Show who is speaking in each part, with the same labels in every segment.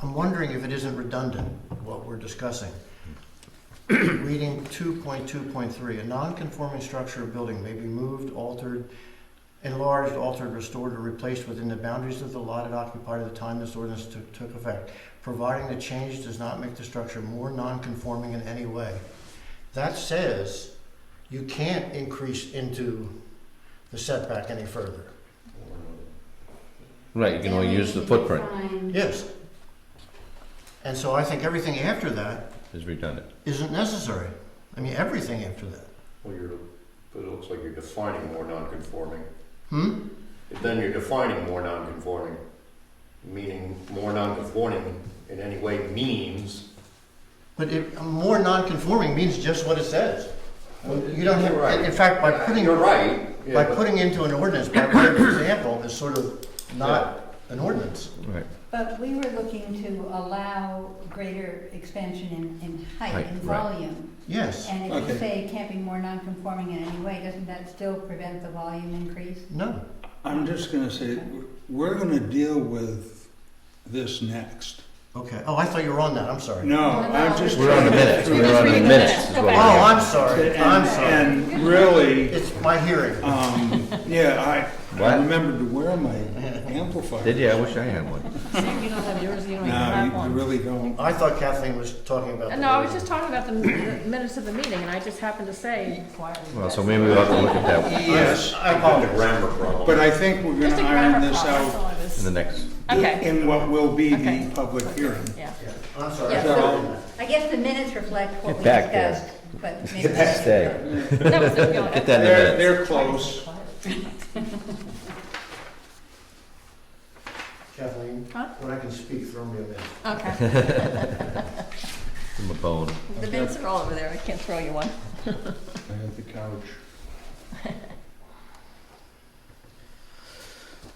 Speaker 1: I'm wondering if it isn't redundant, what we're discussing. Reading two point two point three, a non-conforming structure or building may be moved, altered, enlarged, altered, restored, or replaced within the boundaries of the lot it occupied at the time this ordinance took, took effect, providing the change does not make the structure more non-conforming in any way. That says you can't increase into the setback any further.
Speaker 2: Right, you can only
Speaker 3: Then we
Speaker 2: use the
Speaker 3: need to
Speaker 2: footprint
Speaker 3: define-
Speaker 1: Yes. And so I think everything after that
Speaker 2: is redundant.
Speaker 1: isn't necessary. I mean, everything after that.
Speaker 4: Well, you're, but it looks like you're defining more non-conforming.
Speaker 1: Hmm?
Speaker 4: Then you're defining more non-conforming, meaning more non-conforming in any way means.
Speaker 1: But it, more non-conforming means just what it says. You don't
Speaker 4: You're right.
Speaker 1: have, in fact, by putting,
Speaker 4: You're right. yeah,
Speaker 1: by
Speaker 4: but-
Speaker 1: putting into an ordinance, by way of example, is sort of not an ordinance.
Speaker 2: Right.
Speaker 3: But we were looking to allow greater expansion in, in height
Speaker 2: Height,
Speaker 3: and
Speaker 2: right.
Speaker 3: volume.
Speaker 1: Yes.
Speaker 3: And if you
Speaker 5: Okay.
Speaker 3: say it can't be more non-conforming in any way, doesn't that still prevent the volume increase?
Speaker 1: No.
Speaker 5: I'm just gonna say, we're gonna deal with this next.
Speaker 1: Okay. Oh, I thought you were on that. I'm sorry.
Speaker 5: No,
Speaker 3: Well, no,
Speaker 5: I'm just.
Speaker 3: we're
Speaker 2: We're on the minutes,
Speaker 5: trying to-
Speaker 2: we're on the
Speaker 6: reading the
Speaker 2: minutes.
Speaker 6: minutes.
Speaker 2: is
Speaker 6: Go
Speaker 2: what
Speaker 1: Oh,
Speaker 6: back.
Speaker 2: we're
Speaker 1: I'm
Speaker 2: doing.
Speaker 1: sorry.
Speaker 5: And-
Speaker 1: I'm sorry.
Speaker 5: And really,
Speaker 1: It's my hearing.
Speaker 5: um, yeah, I, I
Speaker 2: What?
Speaker 5: remembered to wear my amplifier.
Speaker 2: Did you? I wish I had one.
Speaker 6: You don't have yours, you don't even
Speaker 5: No,
Speaker 6: have
Speaker 5: you- you
Speaker 6: one.
Speaker 5: really don't.
Speaker 1: I thought Kathleen was talking about. the
Speaker 6: No, I was
Speaker 1: building.
Speaker 6: just talking about the the minutes of the meeting, and I just happened to say.
Speaker 2: Well, so maybe we'll have to look at that one
Speaker 5: Yes,
Speaker 1: I
Speaker 4: The
Speaker 1: apologize.
Speaker 4: grammar problem.
Speaker 5: but I think we're
Speaker 6: Just
Speaker 5: gonna
Speaker 6: a
Speaker 5: iron
Speaker 6: grammar
Speaker 5: this
Speaker 6: problem, that's
Speaker 5: out
Speaker 6: all it
Speaker 2: in
Speaker 6: is.
Speaker 2: the next.
Speaker 6: Okay,
Speaker 5: in what will be the
Speaker 6: Okay.
Speaker 5: public hearing.
Speaker 6: yeah.
Speaker 1: Yeah, I'm sorry.
Speaker 3: Yeah,
Speaker 1: I thought you were
Speaker 5: so-
Speaker 1: on that.
Speaker 3: I guess the minutes reflect what
Speaker 2: Get
Speaker 3: we
Speaker 2: back there.
Speaker 3: discussed, but maybe.
Speaker 2: Stay.
Speaker 6: That was the feeling.
Speaker 2: Get that in the minutes.
Speaker 5: They're, they're close.
Speaker 1: Kathleen,
Speaker 6: Huh?
Speaker 1: when I can speak, throw me a minute.
Speaker 6: Okay,
Speaker 2: Give 'em a bone.
Speaker 6: the minutes are all over there, I can't throw you one.
Speaker 5: I have the couch.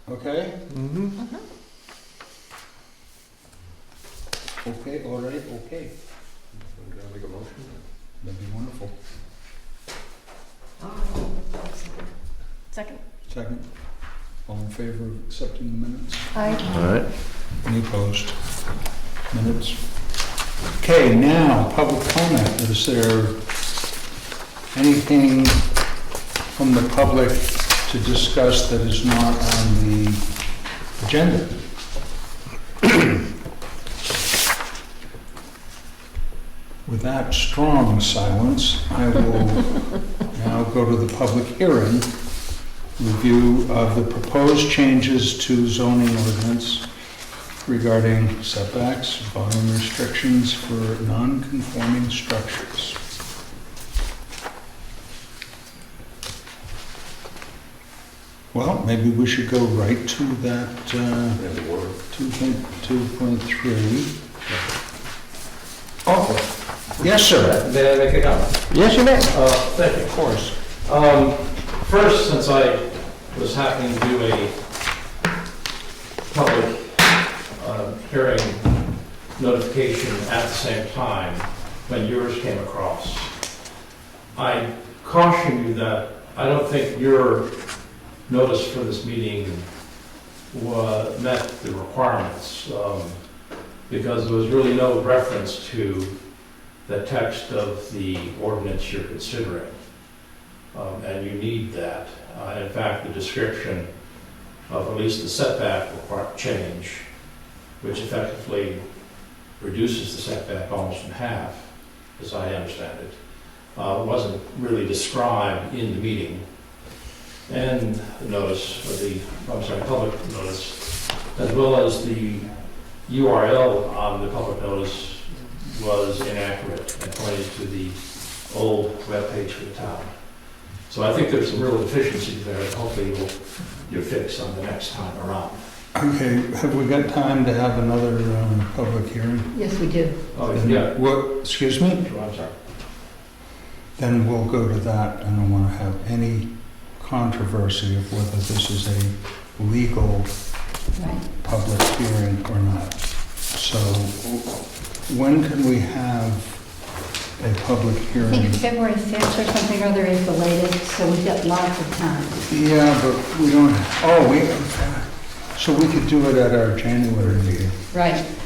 Speaker 5: Okay? Mm-hmm. Okay, all right, okay.
Speaker 4: Can I make a motion?
Speaker 5: That'd be wonderful.
Speaker 6: Second,
Speaker 5: Second, all in favor of accepting the minutes?
Speaker 2: All right.
Speaker 5: Any opposed? Minutes? Okay, now, public comment. Is there anything from the public to discuss that is not on the agenda? With that strong silence, I will now go to the public hearing, review of the proposed changes to zoning ordinance regarding setbacks, volume restrictions for non-conforming structures. Well, maybe we should go right to that uh,
Speaker 4: Yeah, the word.
Speaker 5: 2.2.3. Oh, yes, sir.
Speaker 7: May I make a comment?
Speaker 2: Yes, you may.
Speaker 7: Uh, thank you.
Speaker 5: Of course.
Speaker 7: Um, First, since I was happening to do a public uh, hearing notification at the same time when yours came across, I caution you that I don't think your notice for this meeting wa- met the requirements, um, because there was really no reference to the text of the ordinance you're considering um, and you need that. Uh, In fact, the description of at least the setback require- change, which effectively reduces the setback almost in half, as I understand it, uh, wasn't really described in the meeting. And the notice, or the, I'm sorry, public notice, as well as the URL on the public notice was inaccurate and pointed to the old webpage for the town. So I think there's some real deficiencies there, and hopefully you'll, you'll fix on the next time around.
Speaker 5: Okay, have we got time to have another um, public hearing?
Speaker 3: Yes, we do.
Speaker 7: Oh, yeah,
Speaker 5: What, excuse me?
Speaker 7: I'm sorry.
Speaker 5: Then we'll go to that. I don't want to have any controversy of whether this is a legal
Speaker 3: Right.
Speaker 5: public hearing or not. So when can we have a public
Speaker 3: I think
Speaker 5: hearing?
Speaker 3: February 5th or something or other is the latest, so we've got lots of time.
Speaker 5: Yeah, but we don't, oh, we, so we could do it at our January meeting.
Speaker 3: Right.